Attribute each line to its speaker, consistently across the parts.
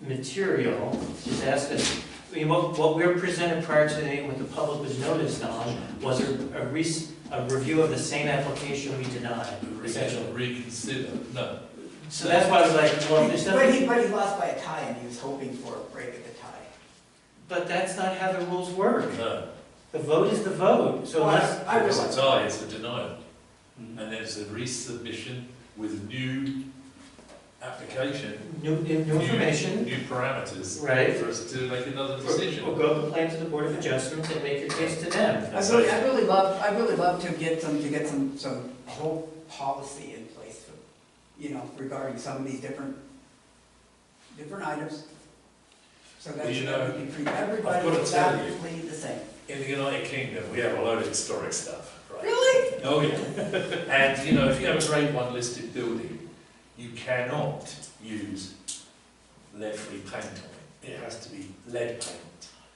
Speaker 1: material, just ask us, I mean, what, what we were presented prior to today, what the public was noticed on, was a, a rec, a review of the same application we denied, essentially.
Speaker 2: Reconsider, no.
Speaker 1: So that's why I was like, well, there's
Speaker 3: But
Speaker 1: nothing,
Speaker 3: he, but he lost by a tie, and he was hoping for a break at the tie.
Speaker 1: but that's not how the rules work.
Speaker 2: No,
Speaker 1: The vote is the vote, so
Speaker 3: Well,
Speaker 1: unless,
Speaker 3: I
Speaker 2: it's
Speaker 3: realize,
Speaker 2: a tie, it's a denial.
Speaker 1: Hmm.
Speaker 2: And there's a resubmission with new application,
Speaker 1: new, new information,
Speaker 2: new parameters
Speaker 1: right?
Speaker 2: for us to make another
Speaker 1: Or
Speaker 2: decision.
Speaker 1: go the plan to the Board of Adjustments and make your case to them.
Speaker 3: I really, I really love, I really love to get some, to get some, some whole policy in place, for, you know, regarding some of these different, different items. So that
Speaker 2: Well, you
Speaker 3: should
Speaker 2: know,
Speaker 3: be pretty, everybody
Speaker 2: gotta
Speaker 3: is
Speaker 2: tell you.
Speaker 3: absolutely the same.
Speaker 2: In the United Kingdom, we have a load of historic stuff, right?
Speaker 3: Really?
Speaker 2: Oh, yeah. And, you know, if you have a grade one listed building, you cannot use lead-free paint on it. It has to be lead paint.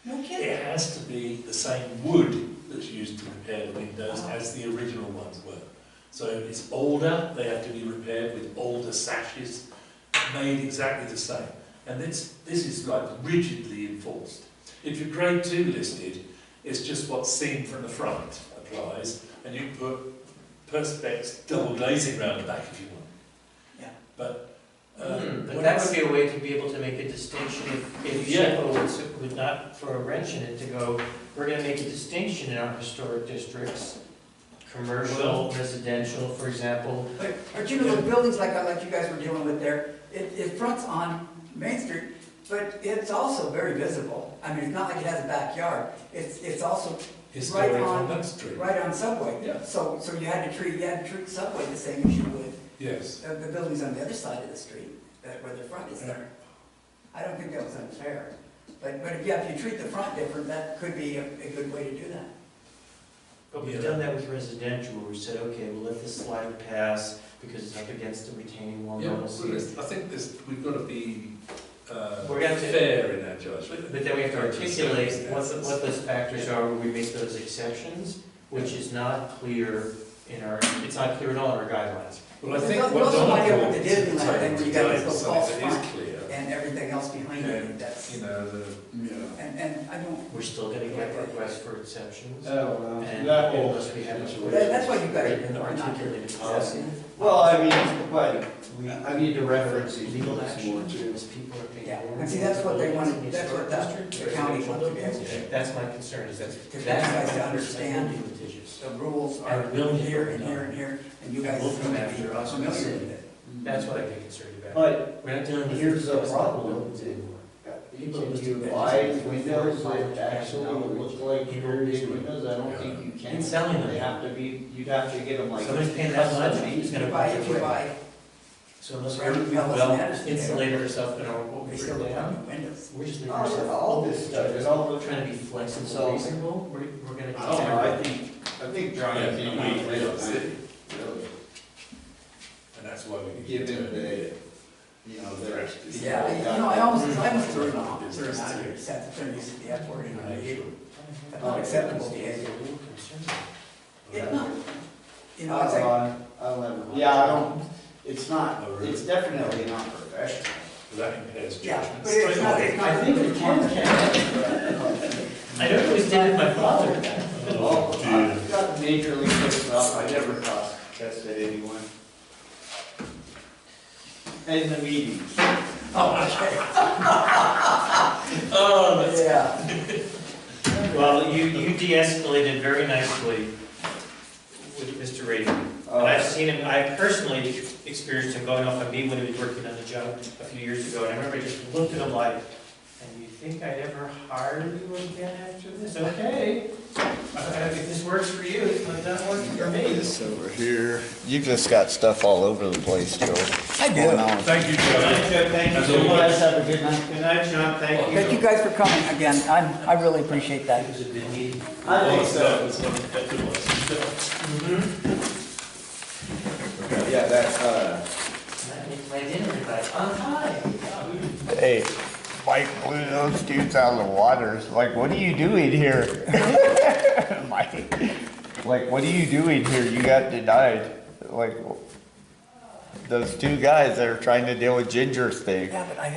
Speaker 3: No kidding?
Speaker 2: It has to be the same wood that's used to repair the windows as the original ones were. So it's older, they have to be repaired with older sashes, made exactly the same. And this, this is like rigidly enforced. If you're grade two listed, it's just what's seen from the front applies, and you can put perspex double glazing round the back if you want.
Speaker 3: Yeah.
Speaker 2: But, uh,
Speaker 1: Hmm, But
Speaker 2: when
Speaker 1: that
Speaker 2: I-
Speaker 1: would be a way to be able to make a distinction if, if
Speaker 2: Yeah.
Speaker 1: SHPO would, s- would not throw a wrench in it to go, we're gonna make a distinction in our historic districts. Commercial, residential, for example,
Speaker 3: But, but you know, the buildings like, like you guys were dealing with there, it, it fronts on Main Street, but it's also very visible. I mean, it's not like it has a backyard, it's, it's also
Speaker 2: Historic
Speaker 3: right
Speaker 2: on
Speaker 3: on-
Speaker 2: that street.
Speaker 3: right on Subway.
Speaker 2: Yeah.
Speaker 3: So, so you had to treat, you had to treat Subway the same as you would uh,
Speaker 2: Yes.
Speaker 3: the, the buildings on the other side of the street, that, where the front is there. I don't think that was unfair, but, but if, yeah, if you treat the front different, that could be a, a good way to do that.
Speaker 1: but we've
Speaker 2: Yeah.
Speaker 1: done that with residential, where we said, okay, we'll let this slider pass because it's up against the retaining wall.
Speaker 2: Yeah, well,
Speaker 1: normalcy.
Speaker 2: there's- I think there's, we've got to be uh,
Speaker 1: We're gonna have to-
Speaker 2: fair in our judgment.
Speaker 1: But but then we have to articulate what, what those factors are, where we make those exceptions, which is not clear in our, it's not clear at all in our guidelines.
Speaker 2: Well, I
Speaker 3: There's
Speaker 2: think
Speaker 3: no-
Speaker 2: what
Speaker 3: there's no
Speaker 2: Donna
Speaker 3: idea what
Speaker 2: brought
Speaker 3: the
Speaker 2: to table
Speaker 3: Disneyland thing where you got
Speaker 2: today
Speaker 3: this
Speaker 2: was
Speaker 3: little
Speaker 2: something
Speaker 3: false
Speaker 2: that is clear.
Speaker 3: And everything else behind it, that's,
Speaker 2: You know, the,
Speaker 4: Yeah.
Speaker 3: and, and I don't,
Speaker 1: We're still gonna get requests for exceptions.
Speaker 4: Oh, well,
Speaker 1: And
Speaker 4: that whole
Speaker 1: unless we have a-
Speaker 4: situation.
Speaker 3: that, that's why you guys
Speaker 1: An
Speaker 3: are not doing
Speaker 1: articulated policy.
Speaker 4: Well, I mean, but we, I need to reference these
Speaker 1: Legal
Speaker 4: things more
Speaker 1: action,
Speaker 4: too.
Speaker 1: because people are being.
Speaker 3: Yeah, and see, that's what they wanted, that's what the the county wanted to be able to do.
Speaker 1: That's my concern, is that.
Speaker 3: To get guys to understand The rules are
Speaker 1: And we'll-
Speaker 3: here and here and here, and you
Speaker 1: And
Speaker 3: guys
Speaker 1: we'll
Speaker 3: seem
Speaker 1: come
Speaker 3: to
Speaker 1: after
Speaker 3: be
Speaker 1: us
Speaker 3: familiar
Speaker 1: and
Speaker 3: with it.
Speaker 1: That's what I'd be concerned about.
Speaker 4: But
Speaker 1: We're not dealing with.
Speaker 4: here's the problem, can you buy windows that actually look like period windows? I don't think you can.
Speaker 1: And selling them.
Speaker 4: They have to be, you'd have to get them like.
Speaker 1: Somebody's paying that much,
Speaker 4: custom
Speaker 1: he's
Speaker 4: made.
Speaker 1: gonna
Speaker 3: You
Speaker 1: buy
Speaker 3: buy,
Speaker 1: it.
Speaker 3: if you buy,
Speaker 1: So unless
Speaker 3: Right,
Speaker 1: we're,
Speaker 3: unless
Speaker 1: well,
Speaker 3: matters.
Speaker 1: insulated ourselves in our, what
Speaker 3: they
Speaker 1: we
Speaker 3: still
Speaker 1: really
Speaker 3: have
Speaker 1: have,
Speaker 3: new windows.
Speaker 1: we're just leaving
Speaker 4: Oh,
Speaker 1: ourselves.
Speaker 4: yeah, all this stuff, it's all
Speaker 1: We're trying to be
Speaker 4: So-
Speaker 1: flexible, reasonable, we're, we're gonna.
Speaker 4: I don't know, I think, I think
Speaker 2: Yeah,
Speaker 4: Johnny came out
Speaker 2: we- we don't
Speaker 4: with
Speaker 2: see
Speaker 4: it.
Speaker 2: it. And that's why we need
Speaker 4: Give
Speaker 2: to.
Speaker 4: him the, you know, the.
Speaker 3: Yeah, I- you know, I almost, I almost threw it off, threw it out of here, set the term use of the F word in my view. That's not acceptable behavior. It's not, you know, it's like,
Speaker 4: Uh, I love it. Yeah, I don't, it's not, it's definitely not professional.
Speaker 2: That impairs
Speaker 3: yeah,
Speaker 2: judgment
Speaker 3: but it's
Speaker 2: straight
Speaker 3: not,
Speaker 2: away.
Speaker 3: it's not.
Speaker 1: I don't always did it with my father.
Speaker 4: Well,
Speaker 2: Oh, dear.
Speaker 4: I've got major league mixed up, I never cross tested anyone. And the meetings.
Speaker 3: Oh,
Speaker 2: Oh,
Speaker 3: okay, yeah.
Speaker 1: Well, you, you de-escalated very nicely with Mr. Rady. And
Speaker 3: Oh.
Speaker 1: I've seen him, I personally experienced him going off on me when he was working on the job a few years ago, and I remember I just looked at him like, and you think I'd ever hire you again after this? Okay. Uh, If this works for you, it doesn't work for me.
Speaker 5: This over here. You've just got stuff all over the place, Joe. I do.
Speaker 2: Thank you, Joe.
Speaker 4: Thank
Speaker 2: you so much.
Speaker 4: have a good night. Good night, John, thank you.
Speaker 3: Thank you guys for coming again, I'm, I really appreciate that.
Speaker 1: was a good meeting.
Speaker 4: I think
Speaker 2: That
Speaker 4: so.
Speaker 2: was one of the better ones.
Speaker 5: Yeah, that, uh,
Speaker 1: I made my dinner invite on time.
Speaker 5: hey, Mike blew those dudes out of the water. It's like, what are you doing here? Mike, like, what are you doing here? You got denied. Like, those two guys that are trying to deal with Ginger's thing.
Speaker 3: Yeah, but I